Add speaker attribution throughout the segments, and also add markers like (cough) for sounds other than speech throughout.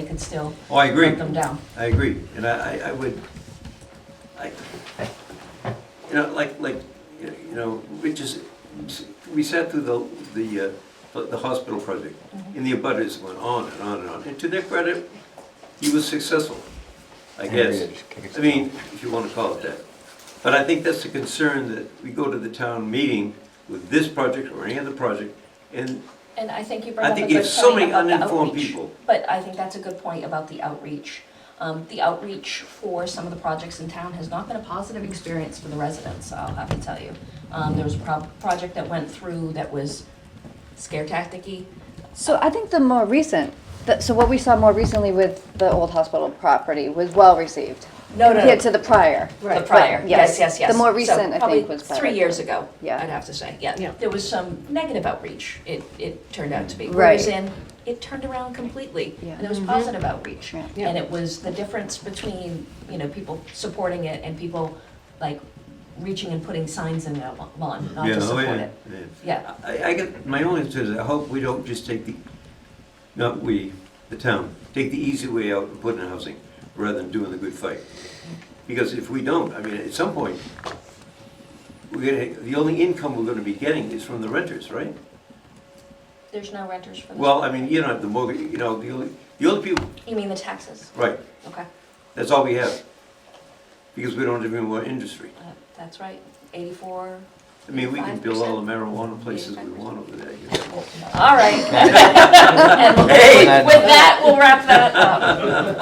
Speaker 1: they could still
Speaker 2: Oh, I agree.
Speaker 1: hunt them down.
Speaker 2: I agree, and I, I- I would, I, you know, like, like, you know, which is, we sat through the, the, uh, the hospital project, and the abutters went on and on and on, and to their credit, he was successful, I guess. I mean, if you want to call it that. But I think that's the concern, that we go to the town meeting with this project or any other project, and
Speaker 1: And I think you brought
Speaker 2: I
Speaker 1: up a
Speaker 2: think
Speaker 1: good
Speaker 2: you have so
Speaker 1: point
Speaker 2: many
Speaker 1: about the
Speaker 2: uninformed
Speaker 1: outreach.
Speaker 2: people.
Speaker 1: But I think that's a good point about the outreach. Um, The outreach for some of the projects in town has not been a positive experience for the residents, I'll have to tell you. Um, There was a pro- project that went through that was scare tactic-y.
Speaker 3: So I think the more recent, that, so what we saw more recently with the old hospital property was well received.
Speaker 1: No, no,
Speaker 3: Compared
Speaker 1: no.
Speaker 3: to the prior.
Speaker 1: The prior,
Speaker 3: But
Speaker 1: yes, yes, yes.
Speaker 3: The more
Speaker 1: So
Speaker 3: recent, I
Speaker 1: probably
Speaker 3: think, was better.
Speaker 1: three years ago,
Speaker 3: Yeah.
Speaker 1: I'd have to say, yeah.
Speaker 3: Yeah.
Speaker 1: There was some negative outreach, it, it turned out to be. Whereas
Speaker 3: Right.
Speaker 1: in, it turned around completely.
Speaker 3: Yeah.
Speaker 1: And there was
Speaker 2: Mm-hmm.
Speaker 1: positive outreach.
Speaker 3: Yeah.
Speaker 1: And it was the difference between, you know, people supporting it and people like reaching and putting signs in their lawn, not
Speaker 2: Yeah,
Speaker 1: to
Speaker 2: oh,
Speaker 1: support
Speaker 2: yeah,
Speaker 1: it.
Speaker 2: yeah.
Speaker 1: Yeah,
Speaker 2: I, I get, my only concern is I hope we don't just take the, not we, the town, take the easy way out and put in housing, rather than doing the good fight. Because if we don't, I mean, at some point, we're gonna, the only income we're gonna be getting is from the renters, right?
Speaker 1: there's no renters for this.
Speaker 2: Well, I mean, you don't have the mortgage, you know, the only, the only people,
Speaker 1: You mean the taxes?
Speaker 2: right,
Speaker 1: Okay,
Speaker 2: that's all we have. Because we don't have any more industry.
Speaker 1: Uh, that's right, eighty-four.
Speaker 2: I mean, we can build all the marijuana places we
Speaker 1: 85%.
Speaker 2: want over there. you know.
Speaker 1: All right. And with
Speaker 2: Hey!
Speaker 1: with that, we'll wrap that up.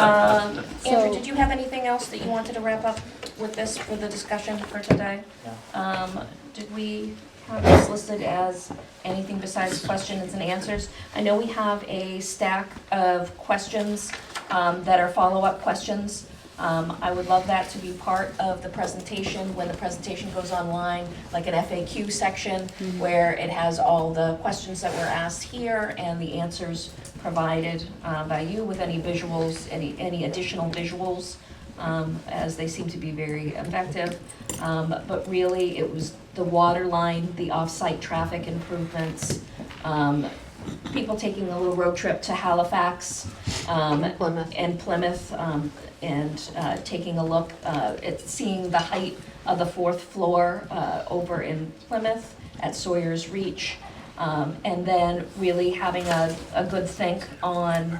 Speaker 1: Um, Andrew,
Speaker 3: So-
Speaker 1: did you have anything else that you wanted to wrap up with this, with the discussion for today? Um, Did we have this listed as anything besides questions and answers? I know we have a stack of questions um, that are follow-up questions. Um, I would love that to be part of the presentation, when the presentation goes online, like an FAQ section, where it has all the questions that were asked here and the answers provided uh, by you with any visuals, any, any additional visuals, um, as they seem to be very effective. Um, But really, it was the water line, the off-site traffic improvements, um, people taking a little road trip to Halifax um,
Speaker 4: Plymouth.
Speaker 1: and Plymouth, um, and uh, taking a look uh, at seeing the height of the fourth floor uh, over in Plymouth at Sawyer's Reach. Um, And then really having a, a good think on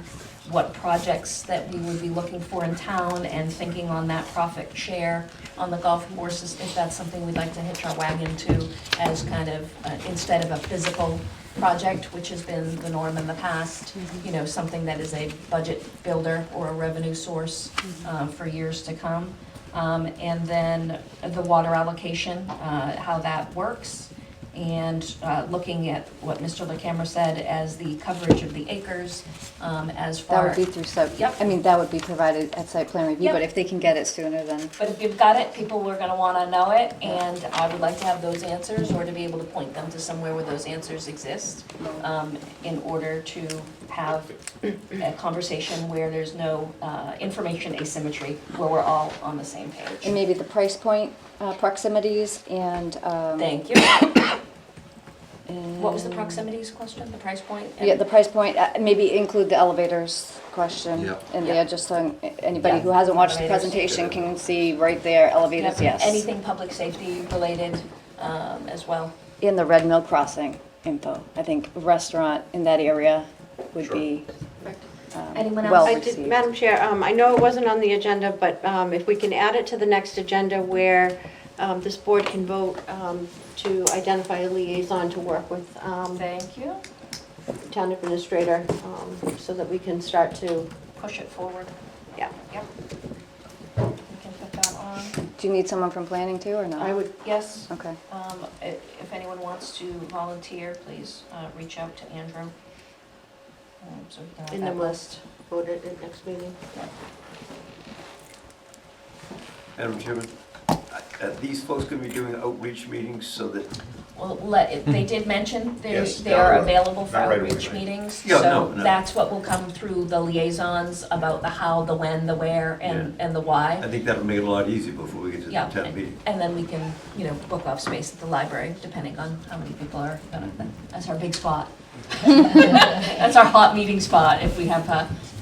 Speaker 1: what projects that we would be looking for in town and thinking on that profit share on the golf courses, if that's something we'd like to hitch our wagon to as kind of, uh, instead of a physical project, which has been the norm in the past, you know, something that is a budget builder or a revenue source uh, for years to come. Um, And then the water allocation, uh, how that works, and uh, looking at what Mr. LaCamera said as the coverage of the acres um, as
Speaker 3: That
Speaker 1: far.
Speaker 3: would be through site,
Speaker 1: Yep.
Speaker 3: I mean, that would be provided at site plan review,
Speaker 1: Yep.
Speaker 3: but if they can get it sooner, then.
Speaker 1: But if you've got it, people are gonna wanna know it, and I would like to have those answers, or to be able to point them to somewhere where those answers exist, um, in order to have a conversation where there's no, uh, information asymmetry, where we're all on the same
Speaker 3: And
Speaker 1: page.
Speaker 3: maybe the price point, uh, proximities and, um.
Speaker 1: Thank you. What was the
Speaker 3: and-
Speaker 1: proximities question, the price point?
Speaker 3: Yeah, the price point, uh, maybe include the elevators question
Speaker 5: Yeah.
Speaker 3: in
Speaker 1: Yeah.
Speaker 3: there, just so anybody
Speaker 1: Yeah.
Speaker 3: who hasn't watched the
Speaker 1: Elevators.
Speaker 3: presentation can see right there, elevators,
Speaker 1: Yep,
Speaker 3: yes.
Speaker 1: Anything public safety related, um, as well.
Speaker 3: In the Red Mill Crossing info, I think restaurant in that area would be um,
Speaker 1: Anyone else?
Speaker 3: well
Speaker 1: I
Speaker 4: I did,
Speaker 3: received.
Speaker 4: Madam Chair, um, I know it wasn't on the agenda, but um, if we can add it to the next agenda where um, this board can vote um, to identify a liaison to work with um,
Speaker 1: Thank you.
Speaker 4: town administrator, um, so that we can start to,
Speaker 1: Push it forward.
Speaker 4: yeah,
Speaker 1: Yep. We can put that on.
Speaker 3: Do you need someone from planning too, or not?
Speaker 4: I would,
Speaker 1: Yes.
Speaker 3: Okay.
Speaker 1: Um, i- If anyone wants to volunteer, please uh, reach out to Andrew. Um, so we can have
Speaker 4: in
Speaker 1: that
Speaker 4: the list, vote it at next meeting.
Speaker 2: Madam Chairman, are these folks gonna be doing outreach meetings so that
Speaker 1: Well, let, if they did mention there's,
Speaker 5: Hmm. Yes,
Speaker 1: they are
Speaker 5: down the road.
Speaker 1: available for
Speaker 5: Not right away,
Speaker 1: outreach
Speaker 5: right?
Speaker 1: meetings.
Speaker 2: Yeah, no,
Speaker 1: So
Speaker 2: no.
Speaker 1: that's what will come through the liaisons about the how, the when, the where, and, and the why.
Speaker 2: I think that'll make it a lot easier before we get to the
Speaker 1: Yeah,
Speaker 2: town
Speaker 1: and-
Speaker 2: meeting.
Speaker 1: And then we can, you know, book off space at the library, depending on how many people (laughs)
Speaker 2: Mm-hmm.
Speaker 1: are, gonna- that's our big spot. That's our hot meeting spot if we have uh,